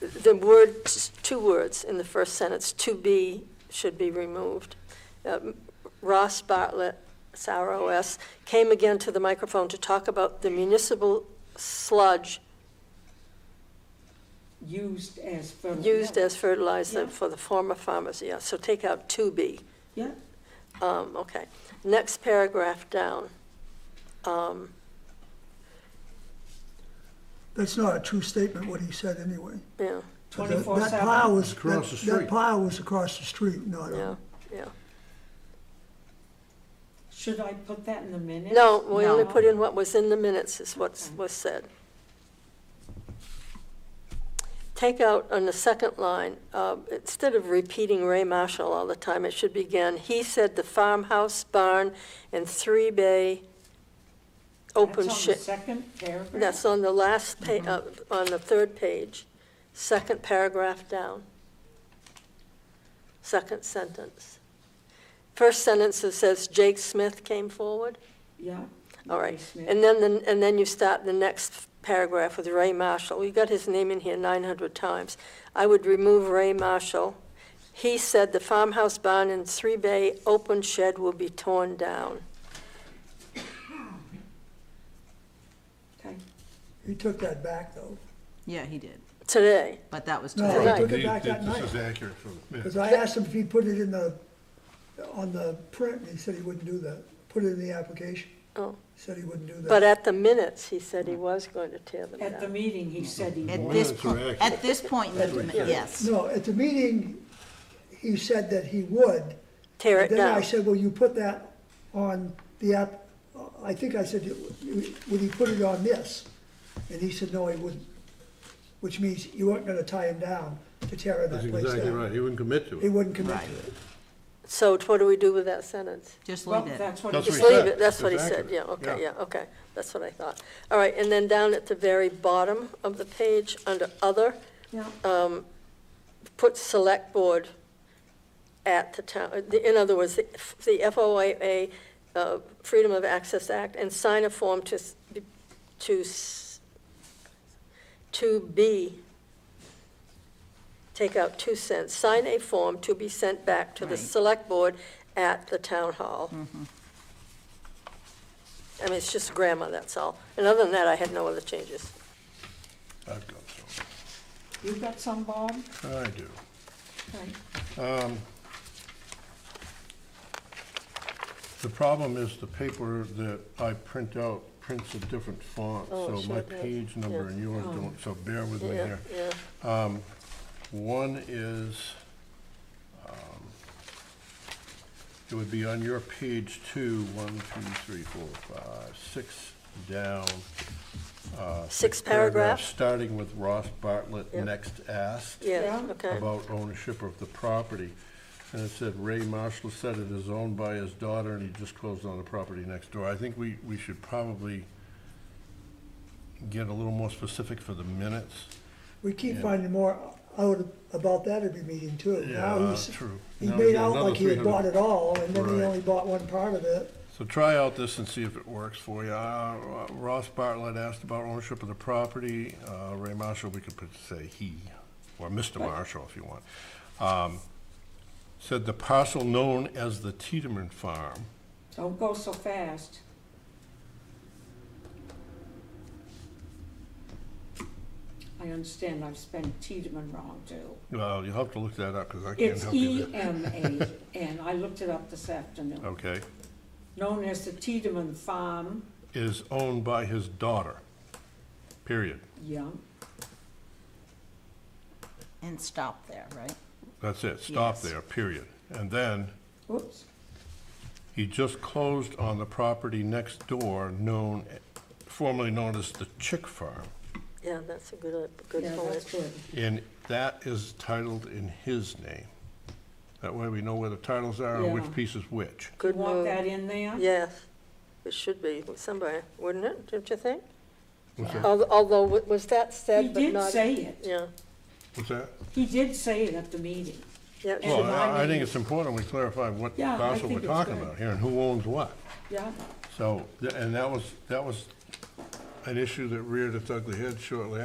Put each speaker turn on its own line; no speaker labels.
the words, two words in the first sentence, "to be" should be removed. Um, Ross Bartlett, SROS, came again to the microphone to talk about the municipal sludge
used as fertilizer.
used as fertilizer
Yeah.
for the former farmers, yeah, so take out "to be."
Yeah,
Um, okay, next paragraph down. Um,
That's not a true statement, what he said anyway.
yeah,
That-
24/7.
That pile was,
Across
that-
the
that
street.
pile was across the street, not,
yeah,
on-
yeah.
should I put that in the minutes?
No, we only
No.
put in what was in the minutes is what was said. Take out on the second line, uh, instead of repeating Ray Marshall all the time, it should begin, he said the farmhouse, barn, and three bay open
That's on the
shed.
second Mm-hmm. paragraph?
That's on the last pa, uh, on the third page, second paragraph down. Second sentence. First sentence it says Jake Smith came forward.
Yeah.
All right,
Basement.
and then, the- and then you start the next paragraph with Ray Marshall. You got his name in here 900 times. I would remove Ray Marshall. He said the farmhouse barn and three-bay open shed will be torn down.
Okay.
he took that back though.
Yeah, he did,
Today,
but that was
No,
today.
he took
These-
it back that
This
night.
is accurate for the
Because
minutes.
I asked him if he put it in the, on the print, and he said he wouldn't do that. Put it in the application.
Oh.
He Said he wouldn't do
but
that.
at the minutes, he said he was going to tear them
At the
down.
meeting, he said he
At
would.
this
Minutes are
point,
accurate.
at this point, in the- yes.
No, at the meeting, he said that he would.
Tear it
Then I
down.
said, well, you put that on the app, I think I said, would he put it on this? And he said, no, he wouldn't, which means you weren't gonna tie him down to tear
That's
that place
exactly right,
down.
he wouldn't commit to
He
it.
wouldn't commit
Right.
to it.
So what do we do with that sentence?
Just
Well,
leave it.
that's what
That's
he
what
Just
he
leave
said.
it, that's what he
It's
said, yeah,
accurate.
okay,
Yeah.
yeah, okay, that's what I thought. All right, and then down at the very bottom of the page, under other,
Yeah.
put select board at the town, uh, the- in other words, the F- the FOIA, uh, Freedom of Access Act, and sign a form to, s- to, s- to be, take out two cents, sign a form to be sent back to the
Right.
select board at the town hall. I mean, it's just grammar, that's all. And other than that, I had no other changes.
I've got some,
You got some, Bob?
I do.
Okay.
The problem is the paper that I print out prints a different font,
Oh, it
so my
sure does.
page number
Yeah. Oh.
and yours don't, so bear with me
Yeah,
here.
yeah.
One is, um, it would be on your page two, one, two, three, four, five, six down. uh,
Six paragraphs?
Starting with Ross Bartlett,
Yep.
next asked
Yeah,
Yeah.
okay.
about ownership of the property. And it said Ray Marshall said it is owned by his daughter and he just closed on the property next door. I think we, we should probably get a little more specific for the minutes.
We keep
Yeah.
finding more out about that every meeting too. Now
Yeah,
he's-
true.
He
Now
made
he's got
out
another
like he had
300.
bought it all, and then he
Right.
only bought one part of it.
So try out this and see if it works for you. Uh, Ross Bartlett asked about ownership of the property. Uh, Ray Marshall, we could put, say he, or Mr. Marshall if you want. Um, Said the parcel known as the Tiedemann Farm
Don't go so fast. I understand I've spelled Tiedemann wrong too.
Well, you'll have to look that up, because I can't
It's
help you
E
there. Oh,
M A, and I looked it up this afternoon.
Okay,
Known as the Tiedemann Farm,
is owned by his daughter, period.
yeah,
And stop there, right?
That's it, stop
Yes.
there, period. And then,
whoops,
he just closed on the property next door known, formerly known as the Chick Farm.
Yeah, that's a good, good
yeah,
point.
that's good.
And that is titled in his name. That way we know where the titles are and
Yeah.
which piece is which.
You
Good
want
move.
that in there?
Yes, it should be somebody, wouldn't it, don't you think?
What's that?
Al- Although, wa- was that
He
said but
did
not?
say it,
Yeah,
What's that?
he did say it at the meeting.
yeah, it
Well,
should-
And my
I I
name-
think it's important we clarify what
Yeah, I
parcel we're
think it's
talking
good.
about here and who owns what.
Yeah,
So, th- and that was, that was an issue that reared its ugly head shortly